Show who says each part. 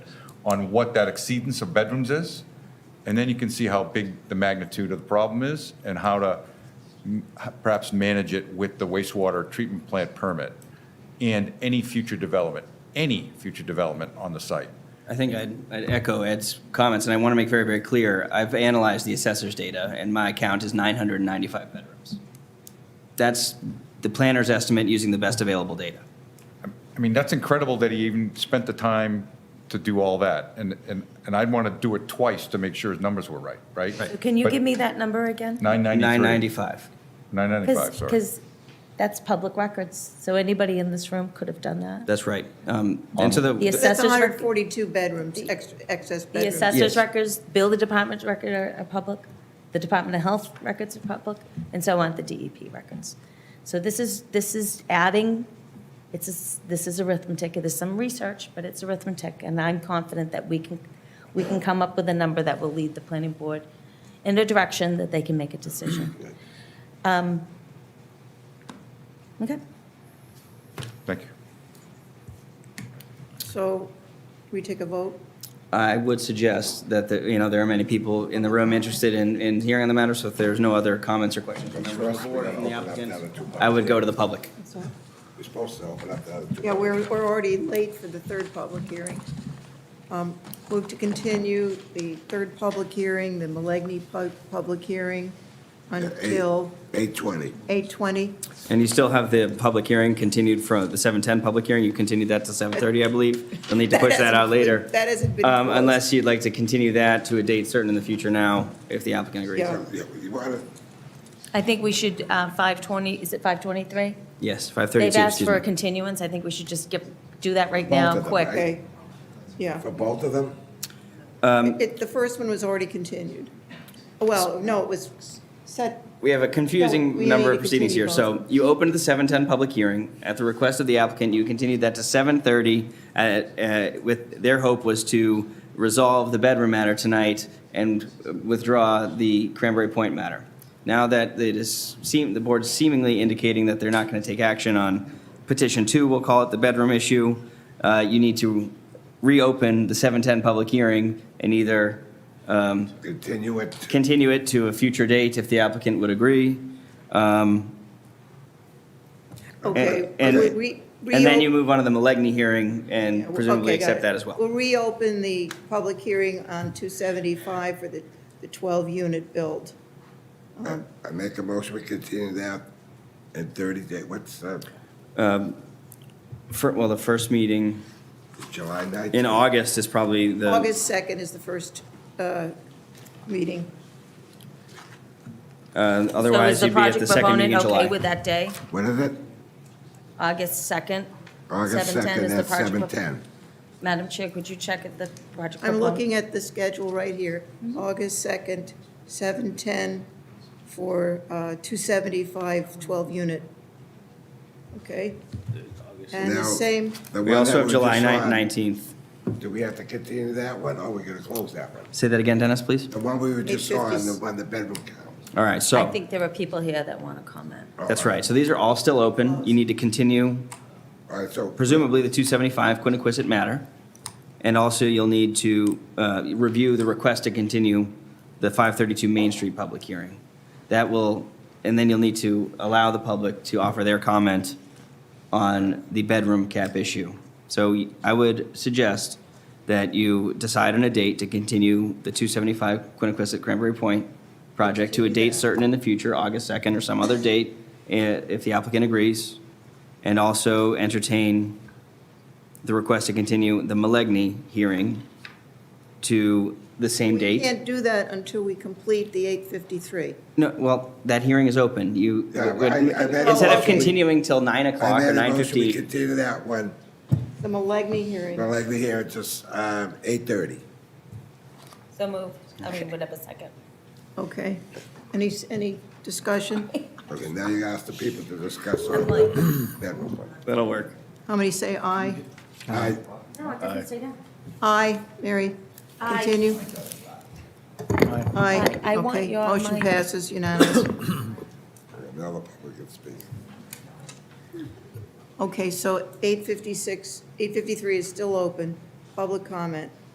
Speaker 1: on what that exceedance of bedrooms is, and then you can see how big the magnitude of the problem is and how to m- perhaps manage it with the wastewater treatment plant permit and any future development, any future development on the site.
Speaker 2: I think I'd, I'd echo Ed's comments, and I want to make very, very clear, I've analyzed the assessor's data, and my count is 995 bedrooms. That's the planner's estimate using the best available data.
Speaker 1: I mean, that's incredible that he even spent the time to do all that. And, and, and I'd want to do it twice to make sure his numbers were right, right?
Speaker 2: Right.
Speaker 3: Can you
Speaker 1: But
Speaker 3: give me that number again?
Speaker 1: 993.
Speaker 2: 995.
Speaker 1: 995, sorry.
Speaker 3: Because that's public records, so anybody in this room could have done that.
Speaker 2: That's right. Um, And so
Speaker 3: The
Speaker 2: the,
Speaker 3: assess-
Speaker 4: That's
Speaker 3: Assessor's rec-
Speaker 4: 142 bedrooms, ex- excess
Speaker 3: The
Speaker 4: bedrooms.
Speaker 3: assessor's
Speaker 2: Yes.
Speaker 3: records, bill the department's record are, are public, the Department of Health records are public, and so on, the DEP records. So this is, this is adding, it's, a s- this is arithmetic, there's some research, but it's arithmetic, and I'm confident that we can, we can come up with a number that will lead the planning board in a direction that they can make a decision. Um, Okay.
Speaker 1: Thank you.
Speaker 4: So we take a vote?
Speaker 2: I would suggest that, the- you know, there are many people in the room interested in, in hearing on the matter, so if there's no other comments or questions from members of the board or from the applicant, I would go to the public.
Speaker 5: We're supposed to open up the other two.
Speaker 4: Yeah, we're, we're already late for the third public hearing. Um, Move to continue the third public hearing, the Milagney pu- public hearing until
Speaker 5: Eight twenty.
Speaker 4: 8:20.
Speaker 2: And you still have the public hearing continued from the 7:10 public hearing, you continued that to 7:30, I believe. You'll need to push that out later.
Speaker 4: That hasn't been
Speaker 2: Um,
Speaker 4: closed.
Speaker 2: Unless you'd like to continue that to a date certain in the future now, if the applicant agrees.
Speaker 4: Yeah.
Speaker 5: Yeah, you wanna,
Speaker 3: I think we should, uh, 520, is it 523?
Speaker 2: Yes, 5:32,
Speaker 3: They've asked
Speaker 2: excuse
Speaker 3: for a
Speaker 2: me.
Speaker 3: continuance, I think we should just get, do that right
Speaker 5: Both
Speaker 3: now,
Speaker 5: of them,
Speaker 3: quick.
Speaker 5: right?
Speaker 4: Okay, yeah.
Speaker 5: for both of them?
Speaker 4: It, the first one was already continued. Well, no, it was set,
Speaker 2: We have a
Speaker 4: No, we
Speaker 2: confusing
Speaker 4: need
Speaker 2: number
Speaker 4: to
Speaker 2: of proceedings here.
Speaker 4: continue
Speaker 2: So you opened the 7:10 public hearing. At the request of the applicant, you continued that to 7:30 uh, uh, with, their hope was to resolve the bedroom matter tonight and withdraw the Cranberry Point matter. Now that it is seem, the board's seemingly indicating that they're not going to take action on petition two, we'll call it the bedroom issue, uh, you need to reopen the 7:10 public hearing and either
Speaker 5: Continue it,
Speaker 2: continue it to a future date if the applicant would agree.
Speaker 4: okay.
Speaker 2: And-
Speaker 4: we- we-
Speaker 2: And then
Speaker 4: reopen-
Speaker 2: you move on to the Milagney hearing and presumably
Speaker 4: Okay, got
Speaker 2: accept
Speaker 4: it.
Speaker 2: that as
Speaker 4: We'll
Speaker 2: well.
Speaker 4: reopen the public hearing on 275 for the the 12-unit build.
Speaker 5: I make a motion, we continue that in thirty day, what's, uh,
Speaker 2: For, well, the first meeting
Speaker 5: July ninth?
Speaker 2: in August is probably the,
Speaker 4: August 2nd is the first uh, meeting.
Speaker 2: uh, otherwise you'd be at the second meeting in
Speaker 3: So is the project proponent okay
Speaker 2: July.
Speaker 3: with that day,
Speaker 5: What is it?
Speaker 3: August 2nd?
Speaker 5: August
Speaker 3: 7:10
Speaker 5: second
Speaker 3: is the
Speaker 5: at
Speaker 3: project
Speaker 5: seven
Speaker 3: pro-
Speaker 5: ten.
Speaker 3: Madam Chair, could you check at the project
Speaker 4: I'm
Speaker 3: proponent?
Speaker 4: looking at the schedule right here, August 2nd, 7:10 for uh, 275, 12-unit. Okay? And the
Speaker 5: Now-
Speaker 4: same,
Speaker 2: We also have July ninth, 19th.
Speaker 5: Do we have to continue that one, or are we gonna close that one?
Speaker 2: Say that again, Dennis, please.
Speaker 5: The one we were just
Speaker 4: Eight
Speaker 5: on, the
Speaker 4: fifties.
Speaker 5: one, the bedroom count.
Speaker 2: All right,
Speaker 3: I
Speaker 2: so,
Speaker 3: think there are people here that want to comment.
Speaker 2: that's right. So these are all still open. You need to continue
Speaker 5: All right, so,
Speaker 2: presumably the 275 Quiniquisette matter. And also you'll need to uh, review the request to continue the 532 Main Street public hearing. That will, and then you'll need to allow the public to offer their comment on the bedroom cap issue. So I would suggest that you decide on a date to continue the 275 Quiniquisette Cranberry Point project to a date certain in the future, August 2nd or some other date, i- if the applicant agrees, and also entertain the request to continue the Milagney hearing to the same
Speaker 4: we
Speaker 2: date.
Speaker 4: can't do that until we complete the 853.
Speaker 2: No, well, that hearing is open. You,
Speaker 5: Yeah, I- I made a
Speaker 2: instead of
Speaker 5: motion, we-
Speaker 2: continuing till 9
Speaker 5: I
Speaker 2: o'clock or
Speaker 5: made a motion, we
Speaker 2: 9:15.
Speaker 5: continue that one,
Speaker 4: The Milagney hearing.
Speaker 5: but like we hear, it's just, um, eight thirty.
Speaker 3: So moved, I mean, whatever, second.
Speaker 4: Okay. Any, any discussion?
Speaker 5: Okay, now you ask the people to discuss on
Speaker 3: I'm like-
Speaker 5: bedroom one.
Speaker 2: That'll work.
Speaker 4: How many say aye?
Speaker 5: I,
Speaker 3: No, it doesn't say that.
Speaker 4: Aye, Mary?
Speaker 3: Aye.
Speaker 4: Continue? Aye.
Speaker 3: I- I want
Speaker 4: Okay.
Speaker 3: your
Speaker 4: Motion
Speaker 3: mic.
Speaker 4: passes unanimous.
Speaker 5: now the public can speak.
Speaker 4: Okay, so 856, 853 is still open, public comment.